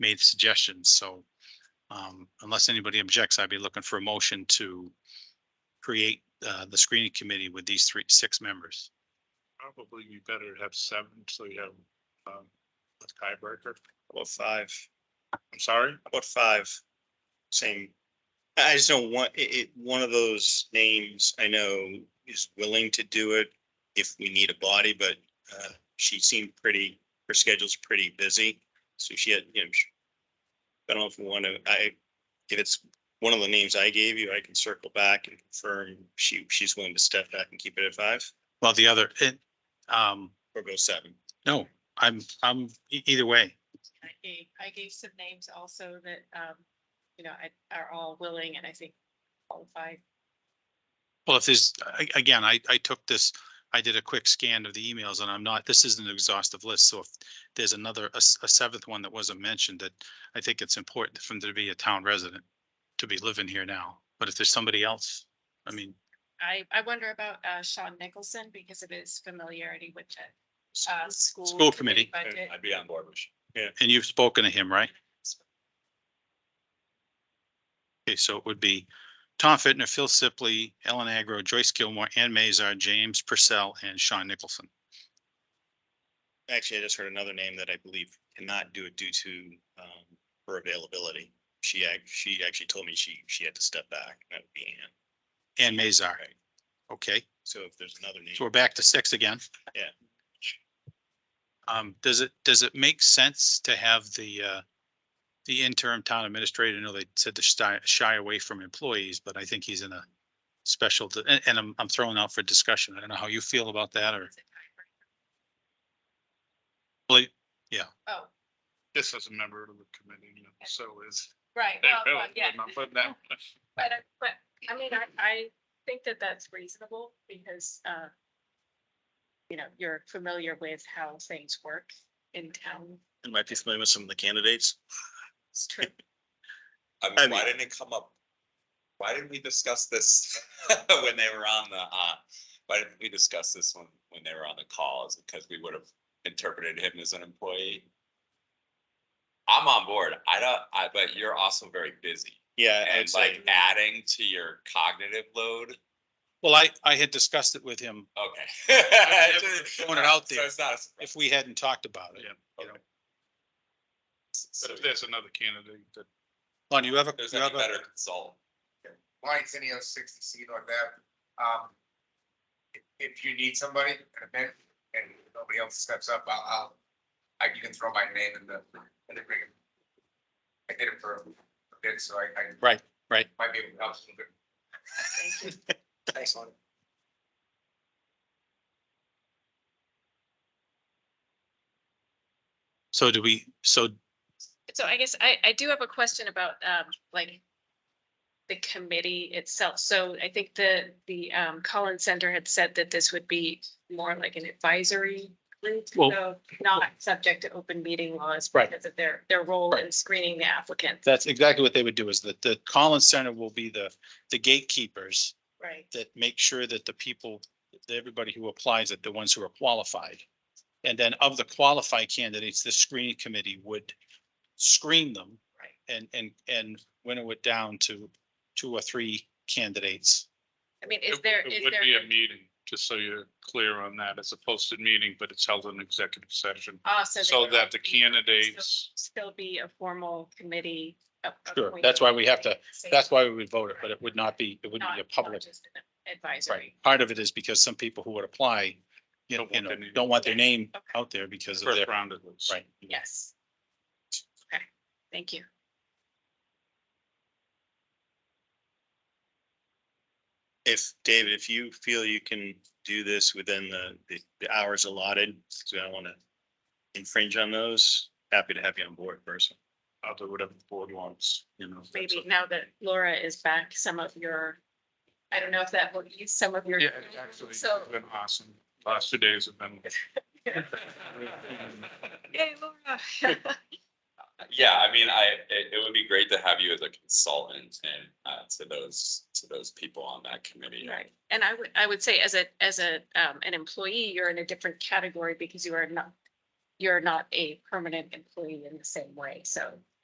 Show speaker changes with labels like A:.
A: made suggestions, so um, unless anybody objects, I'd be looking for a motion to create uh, the screening committee with these three, six members.
B: Probably you better have seven, so you have, um, a tiebreaker.
C: About five,
B: I'm sorry,
C: about five. Same. I just know one, it, it, one of those names I know is willing to do it if we need a body, but, uh, she seemed pretty, her schedule's pretty busy. So she had, you know, she- I don't know if we want to, I, if it's one of the names I gave you, I can circle back and confirm she, she's willing to step back and keep it at five
A: Well, the other, it, um,
C: or go seven.
A: no, I'm, I'm, e- either way,
D: I gave, I gave some names also that, um, you know, I, are all willing and I think qualified.
A: Well, if there's, a- again, I, I took this, I did a quick scan of the emails and I'm not, this isn't an exhaustive list, so if there's another, a, s- a seventh one that wasn't mentioned, that I think it's important for them to be a town resident, to be living here now. But if there's somebody else, I mean,
D: I, I wonder about, uh, Sean Nicholson because of his familiarity with the, uh, school.
A: School committee.
D: Budget.
B: I'd be on board with you.
A: and you've spoken to him, right? Okay, so it would be Tom Fitner, Phil Sipley, Ellen Agro, Joyce Gilmore, Ann Mazar, James Purcell, and Sean Nicholson.
C: Actually, I just heard another name that I believe cannot do it due to um her availability. She act, she actually told me she she had to step back. and That would be Ann.
A: Ann Mazar. Okay.
C: So if there's another name.
A: So we're back to six again.
C: Yeah.
A: Um, does it, does it make sense to have the, uh, the interim town administrator, I know they said to shy, shy away from employees, but I think he's in a special, and, and I'm, I'm throwing out for discussion. I don't know how you feel about that or, well,
D: Oh,
B: This is a member of the committee, you know, so is.
D: right, well, well, yeah,
B: I'm not putting that-
D: but, I- but, I mean, I, I think that that's reasonable because, uh, you know, you're familiar with how things work in town.
C: You might be familiar with some of the candidates.
D: It's true.
E: I
C: I
E: mean, why
C: mean-
E: didn't it come up? Why didn't we discuss this when they were on the, uh, why didn't we discuss this when, when they were on the call? Is it because we would have interpreted him as an employee? I'm on board. I don't, I, but you're also very busy
C: Yeah. I'd
E: and
C: say-
E: like adding to your cognitive load.
A: well, I, I had discussed it with him
E: Okay.
A: throwing it out there.
E: So it's not a surprise.
A: if we hadn't talked about it.
B: Yeah.
A: You know,
B: But
E: So
B: if there's another candidate that
A: Lon, you have a,
E: There's
A: you
E: any
A: have a,
E: better consult.
F: Lion City has sixty seat on that. Um, if- if you need somebody in a bit and nobody else steps up, I'll, I'll, I, you can throw my name in the, in the ring. I did it for a bit, so I, I.
A: Right, right.
F: Might be able to help a little bit.
D: Thank you.
F: Thanks, Lonnie.
A: so do we, so
D: So I guess I, I do have a question about, um, like, the committee itself. So I think the, the, um, Collins Center had said that this would be more like an advisory group,
A: Well-
D: so not subject to open meeting laws
A: Right.
D: because of their, their role in
A: Right.
D: screening the applicant.
A: that's exactly what they would do is that the Collins Center will be the, the gatekeepers
D: Right.
A: that make sure that the people, that everybody who applies, that the ones who are qualified. And then of the qualified candidates, the screening committee would screen them.
D: Right.
A: And, and, and winnow it down to two or three candidates.
D: I mean, is
B: It-
D: there,
B: It
D: is
B: would be a
D: there,
B: meeting, just so you're clear on that. It's a posted meeting, but it's held in executive session.
D: also.
B: So that the candidates,
D: Still be a formal committee. a-
A: Sure, that's why we have to-
D: appointed.
A: That's why we would vote it, but it would not be, it wouldn't
D: Not-
A: be a
D: not
A: public.
D: just an Advisory.
A: Right. Part of it is because some people who would apply, you know,
B: Don't want
A: you know,
B: their name.
A: don't want their name
D: Okay.
A: out there because of
B: first
A: their,
B: round of this.
A: right.
D: Yes. Okay, thank you.
C: If, David, if you feel you can do this within the the- the hours allotted, so I don't want to infringe on those, happy to have you on board person.
B: I'll do whatever the board wants, you know. that's
D: Maybe
B: up
D: now that Laura is back, some of your, I don't know if that will use some of your.
B: Yeah, it's actually, it's
D: So,
B: been awesome. Last two days have been.
D: yay, Laura.
E: Yeah, I mean, I, it, it would be great to have you as a consultant and, uh, to those, to those people on that committee.
D: Right, and I would, I would say as a, as a, um, an employee, you're in a different category because you are not, you're not a permanent employee in the same way, so